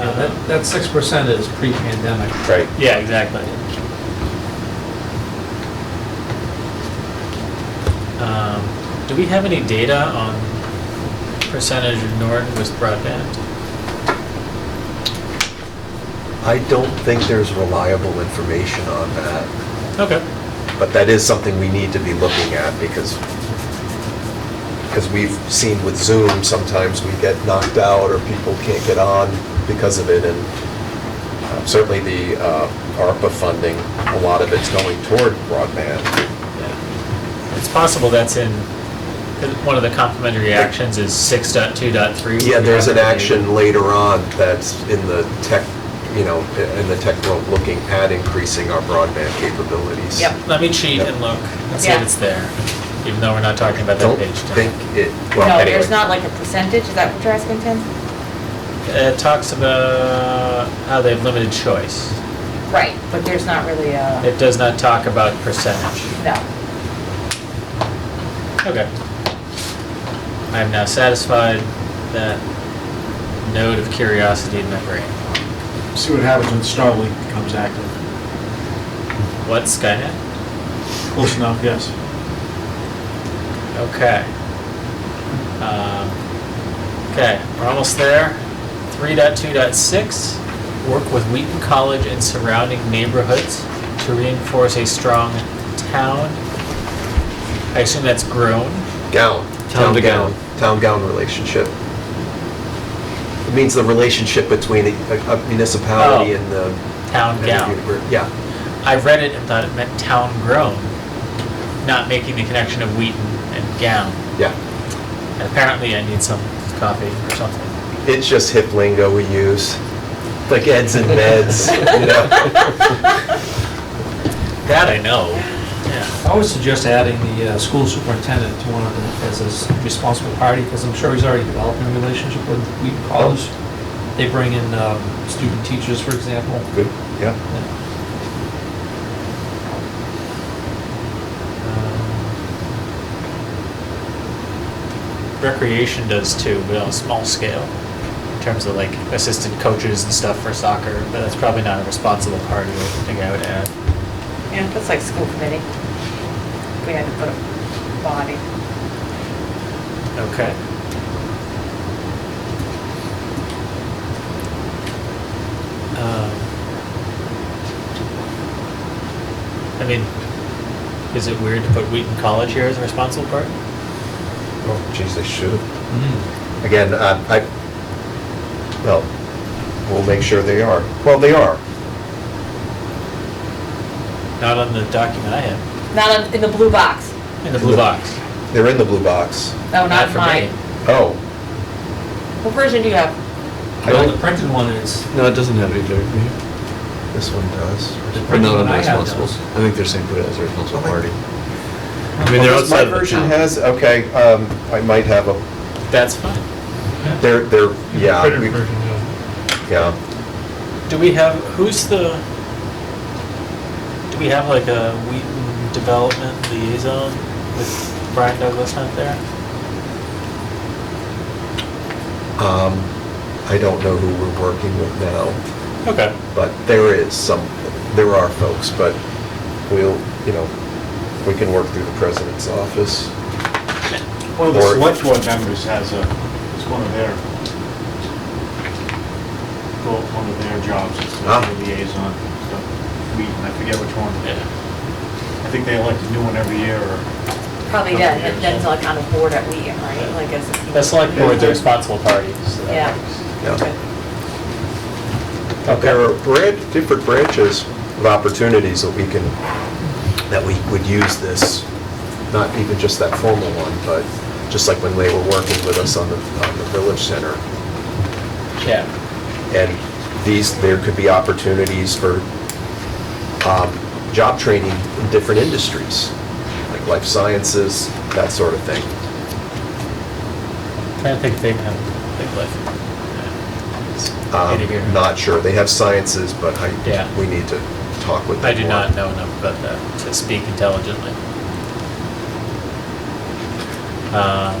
Uh, That, that six percent is pre-pandemic. Right. Yeah, exactly. Um, Do we have any data on percentage of Norton with broadband? I don't think there's reliable information on that, Okay. but that is something we need to be looking at because, because we've seen with Zoom, sometimes we get knocked out or people can't get on because of it. And uh, certainly the uh, ARPA funding, a lot of it's going toward broadband. Yeah. It's possible that's in, 'cause one of the complementary actions is 6.2.3. Yeah, there's an action later on that's in the tech, you know, in the tech world, looking at increasing our broadband capabilities. Yep. Let me cheat and look and see if Yeah. it's there, even though we're not talking about that Don't page. think it, well, No, anyway. there's not like a percentage, is that what you're asking, Tim? Uh, It talks about how they have limited choice. Right, but there's not really a, It does not talk about percentage. no. Okay. I am now satisfied that node of curiosity in my brain. See what happens when Starlink becomes active. What Skynet? Close enough, yes. Okay. Um, Okay, we're almost there. 3.2.6, work with Wheaton College and surrounding neighborhoods to reinforce a strong town. I assume that's grown. Gown. Town to gown. Town gown relationship. It means the relationship between a a municipality Oh. and the. Town and the gown. univer- Yeah, I read it and thought it meant town grown, not making the connection of Wheaton and gown. yeah. Apparently, I need some coffee or something. It's just hip lingo we use, like eds and meds, you know? That I know. Yeah. I would suggest adding the uh, school superintendent to one of the, as a responsible party, because I'm sure he's already developing a relationship with Wheaton College. They bring in um, student teachers, for example. Good, yeah. Yeah. Um, Recreation does too, but on a small scale, in terms of like assistant coaches and stuff for soccer. But that's probably not a responsible part of it. I think I would add. Yeah, that's like school committee. We had to put a body. Okay. Um, I mean, is it weird to put Wheaton College here as a responsible part? Oh, geez, they should have. Mm. Again, uh, I, well, we'll make sure they are. Well, they are. Not on the document I have, Not on- in the blue box. in the blue box. They're in the blue box. No, not for mine. me. Oh. What version do you have? I Well, the don't- printed one is, No, it doesn't have any there. This one does. the We're printed not one I have responsible. does. I think they're saying put it as a responsible Oh, my- party. I mean, they're Oh, this- outside of the My version town. has, okay, um, I might have a, That's fine. they're, they're, yeah. Printed we- version, yeah. Yeah. Do we have, who's the, do we have like a Wheaton Development Liaison with Brian Douglas not there? Um, I don't know who we're working with now, Okay. but there is some, there are folks, but we'll, you know, we can work through the president's office. One of the Or- select board members has a, it's one of their, well, one of their jobs, it's Ah. a liaison, stuff. we, I forget which one. Yeah. I think they elect a new one every year, or, Probably, yeah, that- that's like on a board at Wheaton, right? Like as a. The select board's a responsible party, so that Yeah. works. Yeah. There are bran- different branches of opportunities that we can, that we would use this, not even just that formal one, but just like when they were working with us on the, on the village center. Yeah, And these, there could be opportunities for um, job training in different industries, like life sciences, that sort of thing. trying to think if they have a big life. Um, Any here? Not sure, they have sciences, but Yeah. I, we need to talk with them I do more. not know enough about that to speak intelligently. Um,